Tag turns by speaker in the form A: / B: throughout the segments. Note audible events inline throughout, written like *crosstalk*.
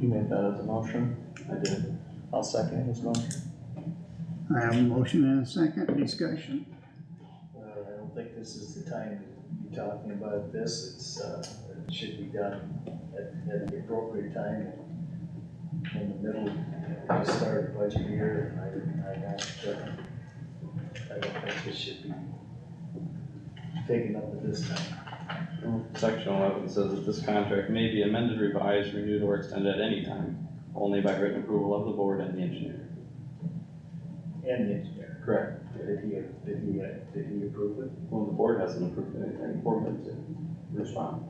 A: made that as a motion? I did. I'll second his motion.
B: I have a motion and a second discussion.
C: Uh, I don't think this is the time to be talking about this, it's, uh, it should be done at, at the appropriate time. In the middle, of the start of budget year, and I, I don't, uh, I don't think this should be taken up at this time.
D: Section eleven says that this contract may be amended, revised, renewed, or extended at any time, only by written approval of the board and the engineer.
C: And the engineer,
D: Correct.
C: did he, did he, uh, did he approve it?
D: Well, the board hasn't approved anything, the board has to respond.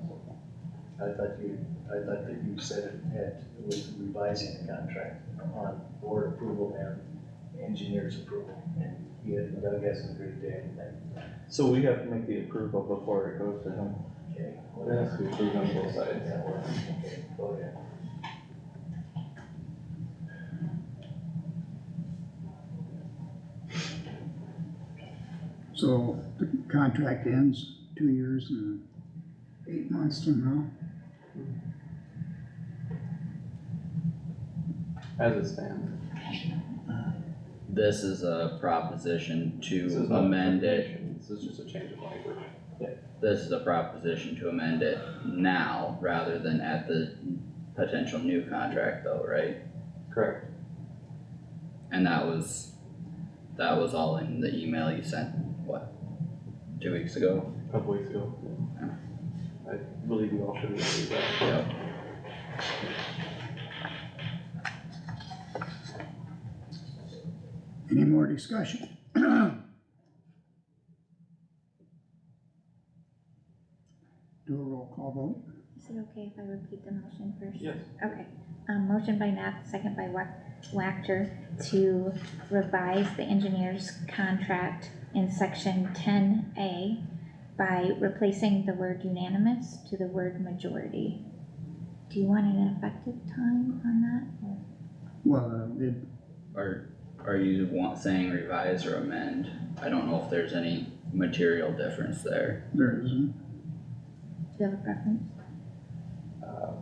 C: I thought you, I thought that you said it had, it was revising the contract on board approval and engineer's approval. And he had, Doug hasn't agreed to anything,
A: So we have to make the approval before it goes to him.
C: okay?
D: It has to be approved on both sides.
C: That works, okay, go ahead.
B: So the contract ends two years and eight months from now.
D: As it stands.
E: This is a proposition
D: This
E: to
D: is not
E: amend it,
D: information, This is just a change of language.
E: this is a proposition to amend it now rather than at the potential new contract though, right?
D: Correct.
E: And that was, that was all in the email you sent, what, two weeks ago?
D: A Couple weeks ago. I believe you all should have received that.
E: Yep.
B: Any more discussion? *clears throat* Do a roll call vote.
F: Is it okay if I repeat the motion first?
D: Yes.
F: Okay, um, motion by Knapp, second by Wac- Wactor to revise the engineer's contract in section ten A by replacing the word unanimous to the word majority. Do you want an effective time on that? or-
B: Well, uh, it,
E: Are, are you want, saying revise or amend? I don't know if there's any material difference there.
B: there isn't.
F: Do you have a preference?
D: Uh,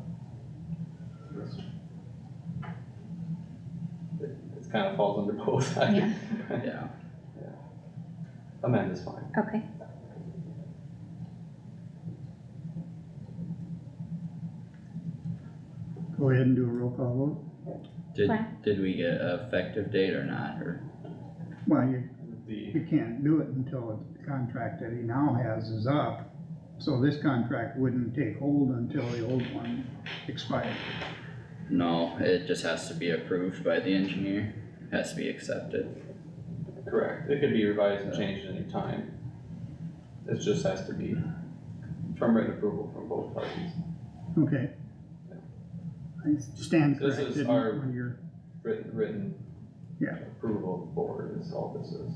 D: This It it's kind of falls under both. I-
F: Yeah.
E: Yeah,
D: *laughs* Amend is fine.
F: Okay,
B: Go ahead and do a roll call vote.
E: did,
F: Right.
E: did we get an effective date or not, or?
B: Well, you,
D: The,
B: you can't do it until the contract that he now has is up. So this contract wouldn't take hold until the old one expires.
E: No, it just has to be approved by the engineer, has to be accepted.
D: correct, it could be revised and changed at any time. It just has to be from written approval from both parties.
B: Okay. I stand
D: This
B: corrected
D: is our-
B: when you're,
D: Written, written.
B: Yeah.
D: Approval of board is all this is.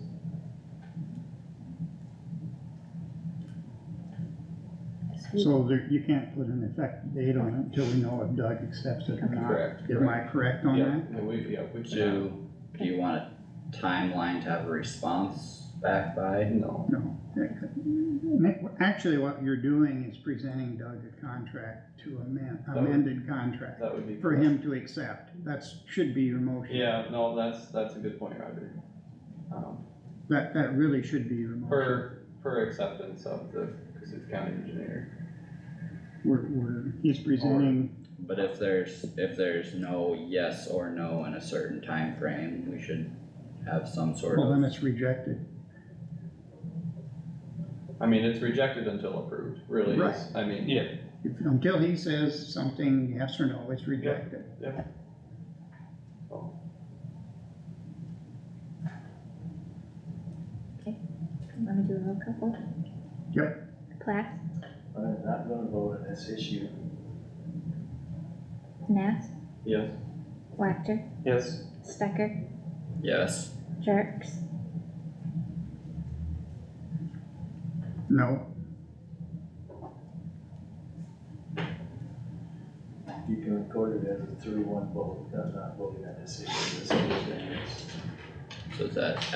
B: so there, you can't put an effective date on it until we know if Doug accepts it or not.
D: Correct.
B: Am I correct on
D: Yeah,
B: that?
D: no, we, yeah, we can.
E: Do, do you want a timeline to have a response back by?
D: No,
B: No. that could- Actually, what you're doing is presenting Doug a contract to amend,
D: That would-
B: amended contract
D: that would be.
B: for him to accept. That's, should be your motion.
D: Yeah, no, that's, that's a good point, Roger. Um,
B: That, that really should be your motion.
D: Per, per acceptance of the Cassuth County engineer.
B: We're, we're, he's presenting,
E: But if there's, if there's no yes or no in a certain time frame, we should have some sort
B: well, then
E: of,
B: it's rejected.
D: I mean, it's rejected until approved, really,
B: Right.
D: is, I mean. Yeah.
B: If- Until he says something yes or no, it's rejected.
F: let me do a roll call vote.
B: Yep.
F: Plath,
C: I'm not gonna vote on this issue.
F: Knapp,
D: Yes.
F: Wactor,
A: Yes.
F: Stecker,
E: yes,
F: Jerks,
B: No,
C: You can record it as a three-one vote, I'm not voting on this issue, this is the difference.
E: so is that